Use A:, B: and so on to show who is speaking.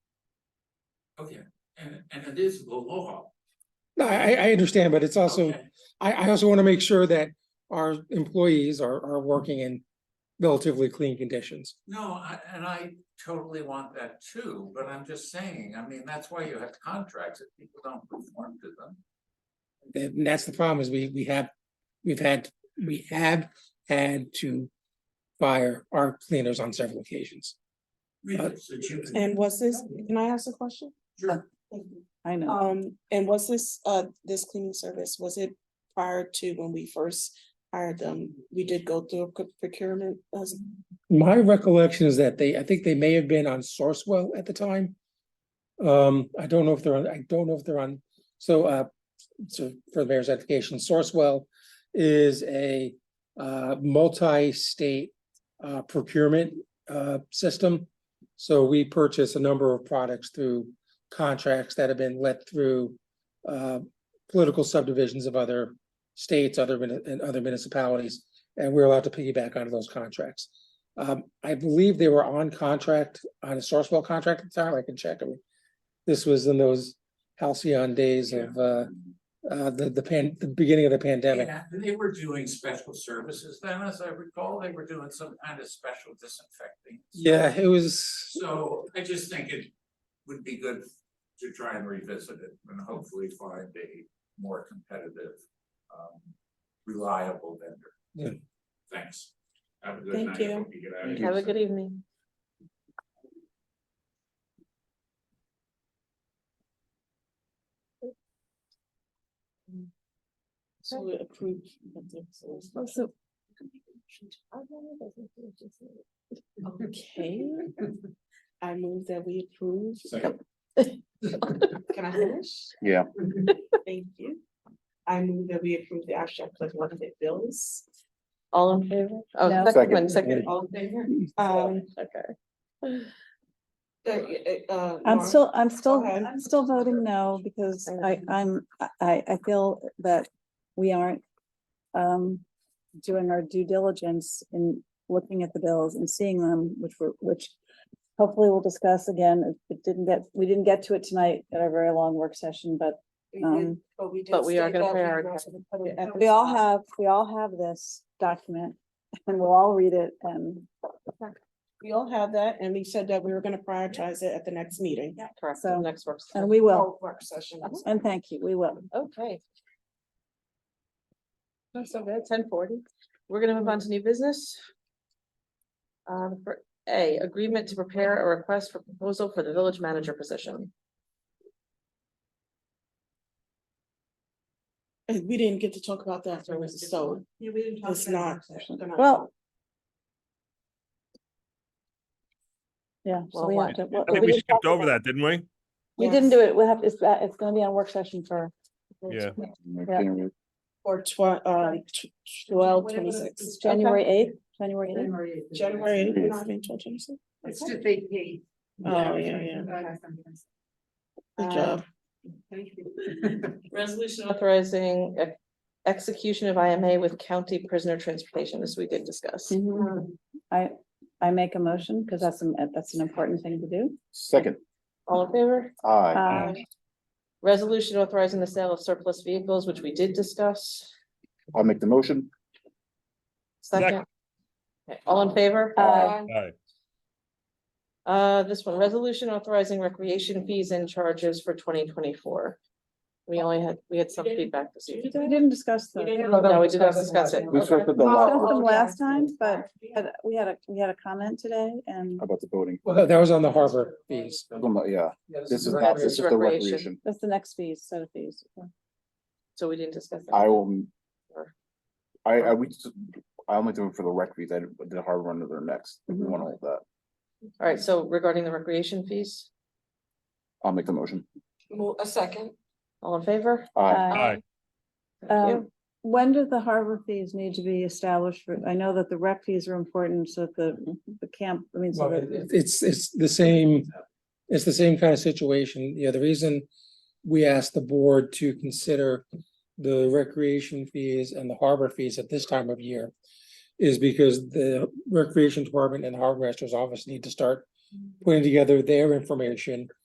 A: Okay, and, and it is the law.
B: No, I, I understand, but it's also,
A: Okay.
B: I, I also want to make sure that our employees are, are working in relatively clean conditions.
A: No, I, and I totally want that too, but I'm just saying, I mean, that's why you have contracts, if people don't perform to them.
B: And that's the problem is we, we have, we've had, we have had to fire our cleaners on several occasions.
A: Really, so you can-
C: And was this, can I ask a question?
A: Sure.
D: I know.
C: Um, and was this, uh, this cleaning service, was it prior to when we first hired them? We did go through a quick procurement, uh,
B: My recollection is that they, I think they may have been on Sourcewell at the time. Um, I don't know if they're on, I don't know if they're on, so, uh, so for the mayor's education, Sourcewell is a, uh, multi-state, uh, procurement, uh, system. So we purchase a number of products through contracts that have been let through, uh, political subdivisions of other states, other, muni- and other municipalities, and we're allowed to piggyback onto those contracts. Um, I believe they were on contract, on a Sourcewell contract at the time, I can check, I mean, this was in those halcyon days of, uh, uh, the, the pan, the beginning of the pandemic.
A: Yeah, they were doing special services then, as I recall, they were doing some kind of special disinfecting.
B: Yeah, it was,
A: So I just think it would be good to try and revisit it and hopefully find a more competitive, um, reliable vendor.
B: Yeah.
A: Thanks. Have a good
C: Thank
A: night.
C: you.
A: Hope you get out of
D: Have a
A: here.
D: good evening.
C: so we approved. but the- so it's-
D: Oh,
C: Okay, I move that we approve.
A: Second.
C: Can I finish?
E: Yeah.
C: Thank you. I move that we approve the abstract of one of the bills.
D: All in favor?
F: No.
D: Oh, second
E: Second.
D: one, second.
C: All in favor? Um,
D: Okay.
C: uh, uh.
F: I'm
C: Nora?
F: still, I'm still,
C: ahead.
F: I'm still voting no, because I,
D: Okay.
F: I'm, I- I, I feel that we aren't um, doing our due diligence in looking at the bills and seeing them, which were, which hopefully we'll discuss again. It didn't get, we didn't get to it tonight at our very long work session, but
C: We did-
F: um,
C: But we did.
D: but we are
C: state that
D: gonna
C: we were
D: prioritize.
C: gonna put it at the
F: we all
C: top.
F: have, we all have this document and we'll all read it and
C: We all have that, and we said that we were gonna prioritize it at the next meeting. Uh-huh.
D: Correct,
F: So-
D: next work.
F: and we will.
C: Or Work session.
F: And thank you, we will.
D: Okay. That's so good, ten forty. We're gonna move on to new business. Um, for A, agreement to prepare a request for proposal for the village manager position.
C: And we didn't get to talk about that, so it's- so it's not. they're not-
F: Well. Yeah,
D: Well,
F: so we
D: why-
F: have to. well,
G: I think we
F: didn't talk
G: skipped over that, didn't we?
F: We didn't do it. We'll have, it's, uh, it's gonna be on work session for,
G: Yeah.
C: Or tw- uh, tw- twelve,
D: Whatever it
C: twenty-six.
F: it's January eighth, January eighth.
C: January.
E: Yeah.
C: 9, 12, 26.
H: It's to vacate.
C: Oh, yeah, yeah. Good
D: Uh,
C: job.
H: Thank you.
D: Resolution authorizing e- execution of IMA with county prisoner transportation, this we did discuss.
F: Mm-hmm. I, I make a motion because that's, an- uh, that's an important thing to do.
E: Second,
D: All in favor?
E: aye.
F: Uh,
D: Resolution authorizing the sale of surplus vehicles, which we did discuss.
E: I'll make the motion.
D: Second.
G: Second.
D: Okay, All in favor?
F: Aye.
G: Aye.
D: Uh, this one, resolution authorizing recreation fees and charges for twenty twenty-four. We only had, we had some feedback this
F: We
D: evening.
F: didn't discuss them.
D: No, we did not discuss it.
E: We
D: Okay.
E: circled the
F: We
E: lot
F: discussed them last time, but but we had a, we had a comment today and
E: about the voting.
B: well, that- that was on the harbor fees.
E: Yeah, this is not,
D: That's
E: this is the
D: recreation.
E: recreation.
F: that's the next fees, set of fees.
D: So we didn't discuss. it.
E: I will. I, I, we, I'll make the vote for the rec fees. I did the harbor under their next. If we
F: Mhm.
E: want to hold that,
D: All right, so regarding the recreation fees,
E: I'll make the motion.
C: A second.
D: all in favor?
E: Aye.
F: Uh,
G: Aye.
D: Thank you.
F: Um, When do the harbor fees need to be established? for- I know that the rec fees are important, so that the, the camp, I mean, so
B: Well,
F: that,
B: it- It's, it's the same, it's the same kind of situation. You know, the reason we asked the board to consider the recreation fees and the harbor fees at this time of year is because the recreation department and the harbor master's office need to start putting together their information